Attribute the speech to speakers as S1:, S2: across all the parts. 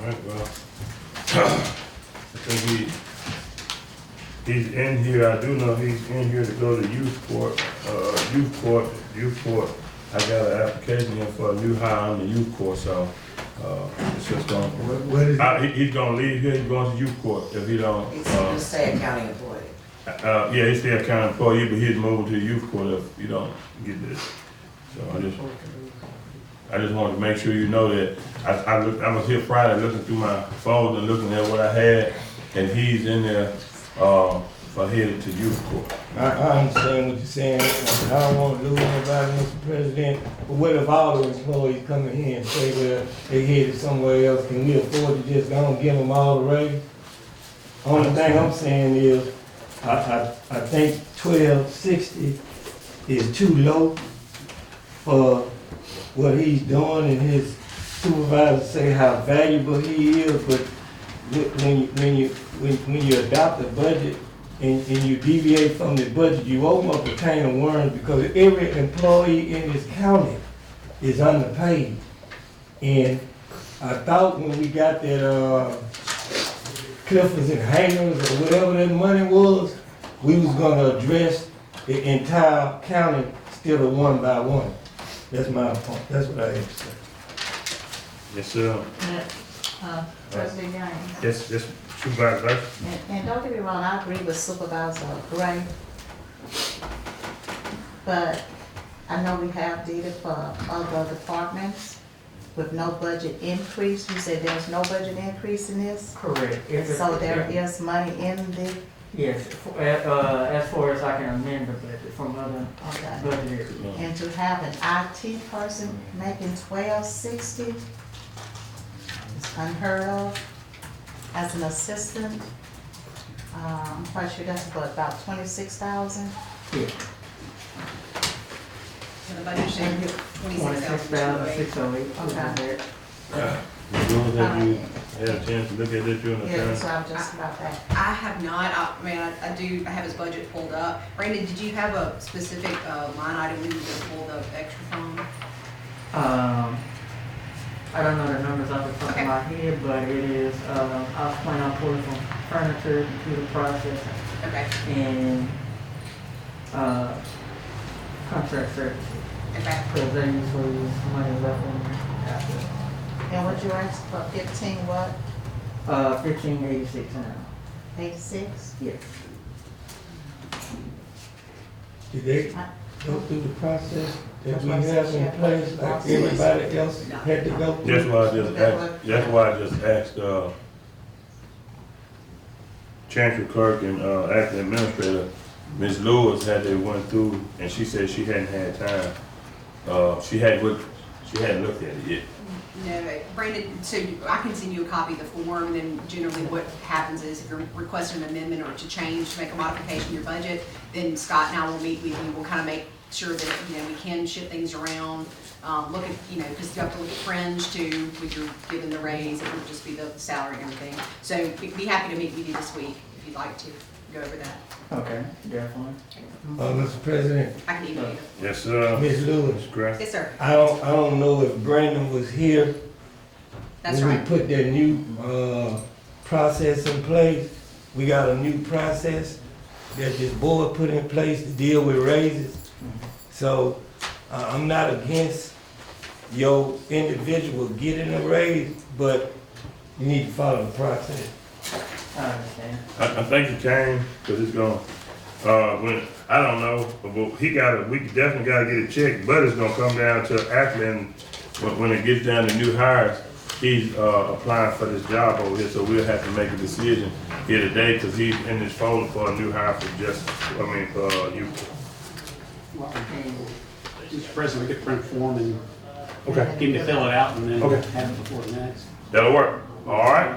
S1: All right, well, I think he, he's in here, I do know he's in here to go to youth court, uh, youth court, youth court. I got an application in for a new hire on the youth court, so, uh, it's just gonna,
S2: What, what is,
S1: I, he, he's gonna leave here, he's going to youth court if he don't,
S3: He's
S1: uh,
S3: just saying county employee.
S1: Uh, yeah, he's still county employee, but he's moving to the youth court if you don't get this. So I just, I just wanted to make sure you know that, I, I looked, I was here Friday looking through my phone and looking at what I had, and he's in there, um, for headed to youth court.
S2: I, I understand what you're saying, I don't wanna lose nobody, Mr. President, but what if all the employees come in here and say, well, they headed somewhere else, can we afford to just go and give them all the raise? Only thing I'm saying is, I, I, I think twelve sixty is too low for what he's doing, and his supervisors say how valuable he is, but wh- when, you- when you, when, when you adopt a budget, and, and you deviate from the budget, you open up a can of worms because every employee in this county is underpaid. And I thought when we got that, uh, Clifford's and Hangers or whatever that money was, we was gonna address the entire county still one by one. That's my point, that's what I have to say.
S1: Yes, sir.
S4: Uh, President Yang,
S1: Yes, yes, Supervisor Burke.
S4: and, and don't get me wrong, I agree with Supervisor Gray. But I know we have data for other departments with no budget increase. You said there's no budget increase in this?
S5: Correct. If it-
S4: So there is money in the,
S5: Yes, for- uh, as far as I can amend the budget from other
S4: okay.
S5: budget areas.
S4: And to have an IT person making twelve sixty is unheard of. As an assistant, um, I'm quite sure that's what, about twenty-six thousand?
S6: And the budget should be
S5: Twenty-six thousand, six oh eight, something like that.
S1: As soon as that you had a chance to look at it during the
S4: Yeah,
S1: time.
S4: so I'm just about that.
S6: I have not, uh, I I mean, I I do, I have his budget pulled up. Brandon, did you have a specific uh, line item we need to pull the extra from?
S5: Um, I don't know the numbers off the top of my head, but it is, um, I was planning on pulling from furniture, computer processing,
S6: Okay,
S5: and, uh, contract services.
S6: okay.
S5: Cause they usually use money left on after,
S4: And what you asked for fifteen, what,
S5: uh, fifteen eighty-six now,
S4: eighty-six?
S5: yes.
S2: Did they go through the process that
S4: That's
S2: we
S4: what I said,
S2: have in
S4: yeah.
S2: place like everybody else had to go
S1: That's
S2: through?
S1: why I just asked, that's why I just asked, uh, Chancellor Clerk and, uh, Acting Administrator, Ms. Lewis had they went through, and she said she hadn't had time. Uh, she hadn't looked, she hadn't looked at it yet.
S6: No, Brandon, so you- I can send you a copy of the form, and then generally what happens is if you're requesting an amendment or to change, to make a modification to your budget, then Scott and I will meet with you, we'll kind of make sure that, you know, we can shift things around, um, look at, you know, because you have to look at fringe too, when you're given the raise, it would just be the salary and everything. So we'd be happy to meet with you this week, if you'd like to go over that.
S5: Okay, definitely.
S2: Uh, Mr. President,
S6: I can email you.
S1: Yes, sir.
S2: Ms. Lewis,
S1: Ms. Graf.
S6: Yes, sir,
S2: I don't, I don't know if Brandon was here
S6: that's
S2: when
S6: right.
S2: we put that new, uh, process in place. We got a new process that this board put in place to deal with raises. So, uh, I'm not against your individual getting a raise, but you need to follow the process.
S5: I understand.
S1: I, I think he came, cause it's gonna, uh, when, I don't know, but he gotta, we definitely gotta get it checked, but it's gonna come down to Acting, when, when it gets down to new hires, he's, uh, applying for this job over here, so we'll have to make a decision here today, cause he's in his folder for a new hire for just, I mean, for uh, you.
S7: Mr. President, we could print form and
S1: Okay.
S7: give him to fill it out and then
S1: Okay.
S7: have it before the next.
S1: That'll work, alright?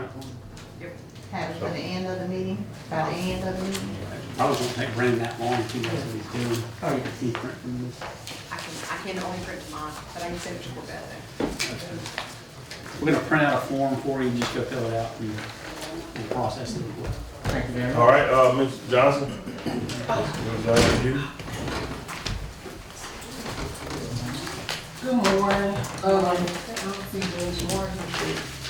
S4: Have it for the end of the meeting, by the end of the meeting?
S7: Probably won't take Brandon that long if he knows what he's doing.
S5: Oh,
S7: If he print from this.
S6: I can, I can only print mine, but I can send it to Corvette.
S7: We're gonna print out a form for you, and just go fill it out and, and process it.
S5: Thank you very much.
S1: Alright, uh, Mr. Johnson? Mr. Johnson, you?
S8: Good morning. Um, I don't think there's more. than